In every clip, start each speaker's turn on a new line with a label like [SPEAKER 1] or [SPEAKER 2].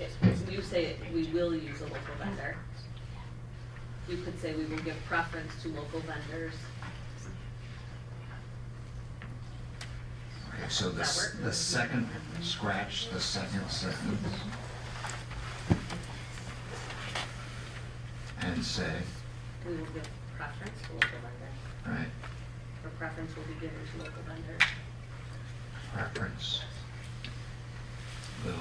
[SPEAKER 1] if you say it, we will use a local vendor. You could say we will give preference to local vendors.
[SPEAKER 2] Okay, so the, s-
[SPEAKER 1] That work?
[SPEAKER 2] the second, scratch the second sentence. And say,
[SPEAKER 1] We will give preference to local vendor,
[SPEAKER 2] right,
[SPEAKER 1] or preference will be given to local vendors.
[SPEAKER 2] preference. Will.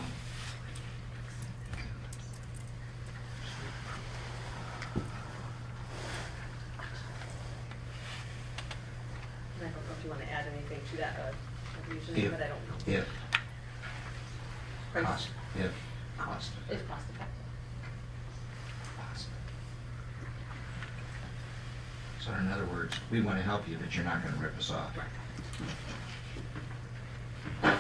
[SPEAKER 1] And I don't know if you wanna add anything to that, uh, usually,
[SPEAKER 2] If-
[SPEAKER 1] but I don't know.
[SPEAKER 2] If,
[SPEAKER 1] Price
[SPEAKER 2] cost, if, cost.
[SPEAKER 1] Is cost effective.
[SPEAKER 2] So in other words, we want to help you, but you're not going to rip us off.
[SPEAKER 3] All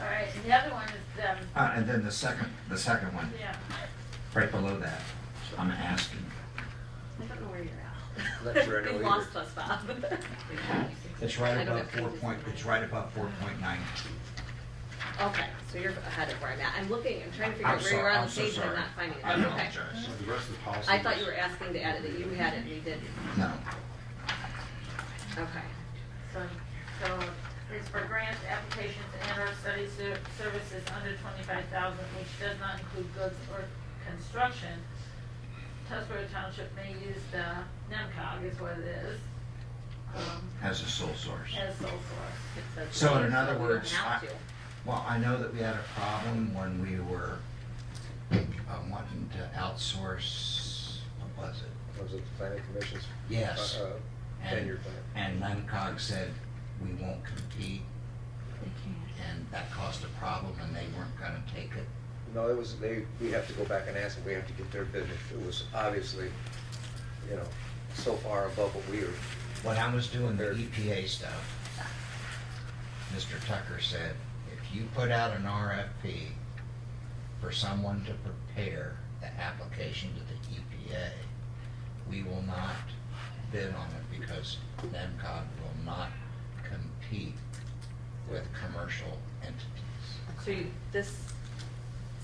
[SPEAKER 3] right, and the other one is, um,
[SPEAKER 2] Uh, and then the second, the second one,
[SPEAKER 3] yeah,
[SPEAKER 2] right below that, I'm asking.
[SPEAKER 1] I don't know where you're at.
[SPEAKER 4] That's right,
[SPEAKER 1] You
[SPEAKER 4] no,
[SPEAKER 1] lost
[SPEAKER 4] either.
[SPEAKER 1] us, Bob.
[SPEAKER 2] It's right
[SPEAKER 1] I don't have
[SPEAKER 2] above four
[SPEAKER 1] pages
[SPEAKER 2] point,
[SPEAKER 1] in
[SPEAKER 2] it's
[SPEAKER 1] mine.
[SPEAKER 2] right above four point nine.
[SPEAKER 1] Okay, so you're ahead of where I'm at. I'm looking, I'm trying to figure out where you're on the page and I'm not finding it.
[SPEAKER 2] I
[SPEAKER 1] Okay.
[SPEAKER 2] apologize.
[SPEAKER 5] So the rest of the policy.
[SPEAKER 1] I thought you were asking to add it, that you had it and you didn't.
[SPEAKER 2] No,
[SPEAKER 1] Okay.
[SPEAKER 3] so, so it's for grants, applications, and or study ser- services under twenty-five thousand, which does not include goods or construction. Tuscaro Township may use the NEMCOG is what it is, um,
[SPEAKER 2] as a sole source.
[SPEAKER 3] as sole source.
[SPEAKER 1] It says
[SPEAKER 2] So in
[SPEAKER 1] we
[SPEAKER 2] other
[SPEAKER 1] don't
[SPEAKER 2] words,
[SPEAKER 1] have
[SPEAKER 2] I-
[SPEAKER 1] to.
[SPEAKER 2] Well, I know that we had a problem when we were uh, wanting to outsource, what was it?
[SPEAKER 4] Was it the planning commission's?
[SPEAKER 2] Yes.
[SPEAKER 4] uh, uh,
[SPEAKER 2] And-
[SPEAKER 4] Tenure plan.
[SPEAKER 2] And NIMCOG said, we won't compete, and that caused a problem, and they weren't gonna take it.
[SPEAKER 4] No, it was, they, we have to go back and ask them, we have to get their business. It was obviously, you know, so far above what we were.
[SPEAKER 2] When I was doing the EPA stuff, Mr. Tucker said, if you put out an RFP for someone to prepare the application to the EPA, we will not bid on it because NEMCOG will not compete with commercial entities.
[SPEAKER 1] So you- this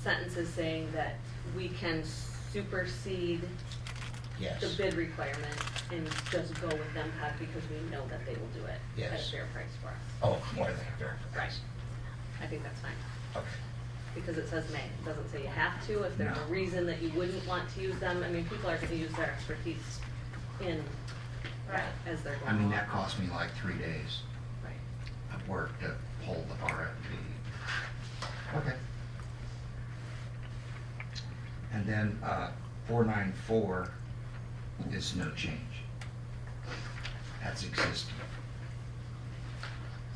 [SPEAKER 1] sentence is saying that we can supersede the
[SPEAKER 2] Yes,
[SPEAKER 1] bid requirement and just go with them Pat, because we know that they will do it at a
[SPEAKER 2] Yes.
[SPEAKER 1] fair price for us.
[SPEAKER 2] oh, more than fair price.
[SPEAKER 1] I think that's fine.
[SPEAKER 2] Okay,
[SPEAKER 1] because it says may, it doesn't say you have to, if there's a
[SPEAKER 2] No.
[SPEAKER 1] reason that you wouldn't want to use them, I mean, people are gonna use their expertise in,
[SPEAKER 3] Right.
[SPEAKER 1] as they're
[SPEAKER 2] I
[SPEAKER 1] going
[SPEAKER 2] mean,
[SPEAKER 1] along.
[SPEAKER 2] that cost me like three days
[SPEAKER 1] Right.
[SPEAKER 2] of work to pull the RFP. Okay. And then, uh, four nine four is no change. That's existing.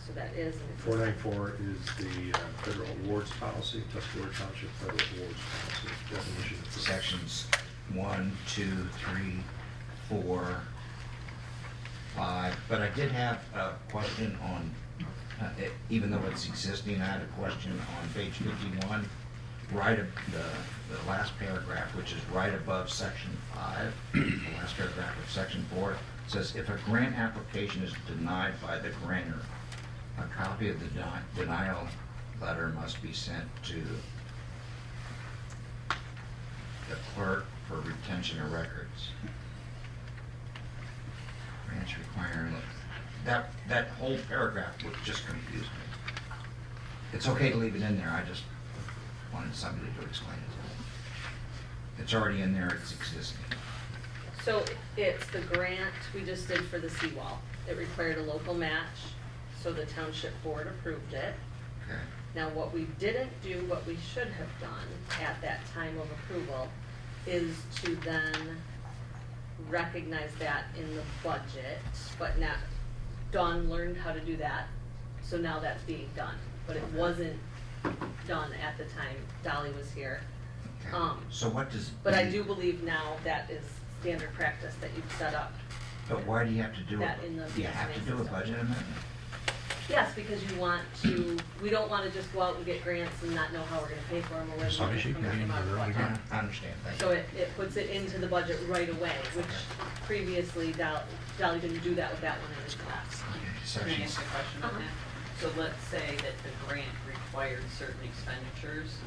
[SPEAKER 1] So that is.
[SPEAKER 5] Four nine four is the uh, federal awards policy, Tuscaloosa Township Federal Awards Policy, definition. of-
[SPEAKER 2] Sections one, two, three, four, five, but I did have a question on, uh, it- even though it's existing, I had a question on page fifty-one, right ab the, the last paragraph, which is right above section five, the last paragraph of section four, says, if a grant application is denied by the grantor, a copy of the deni- denial letter must be sent to the clerk for retention of records. Grants require, that, that whole paragraph would just confuse me. It's okay to leave it in there, I just wanted somebody to explain it to me. It's already in there, it's existing.
[SPEAKER 1] So it's the grant we just did for the seawall, it required a local match, so the township board approved it.
[SPEAKER 2] Okay,
[SPEAKER 1] Now, what we didn't do, what we should have done at that time of approval, is to then recognize that in the budget, but not, Dawn learned how to do that, so now that's being done. But it wasn't done at the time Dolly was here.
[SPEAKER 2] okay.
[SPEAKER 1] Um,
[SPEAKER 2] So what does?
[SPEAKER 1] But I do believe now that is standard practice that you've set up.
[SPEAKER 2] But why do you have to do
[SPEAKER 1] that in the
[SPEAKER 2] it? You have to do a
[SPEAKER 1] finance
[SPEAKER 2] budget amendment?
[SPEAKER 1] Yes, because you want to, we don't wanna just go out and get grants and not know how we're gonna pay for them or where.
[SPEAKER 5] Sorry,
[SPEAKER 1] we're
[SPEAKER 5] she
[SPEAKER 1] gonna
[SPEAKER 5] got
[SPEAKER 1] come
[SPEAKER 5] into
[SPEAKER 1] out of
[SPEAKER 5] the
[SPEAKER 1] the
[SPEAKER 5] wrong
[SPEAKER 1] budget.
[SPEAKER 5] account.
[SPEAKER 2] I understand, thank you.
[SPEAKER 1] So it, it puts it into the budget right away, which previously Dolly, Dolly didn't do that with that one in his class.
[SPEAKER 2] Okay,
[SPEAKER 6] Can I
[SPEAKER 2] Sections,
[SPEAKER 6] ask a question on that? So let's say that the grant required certain expenditures,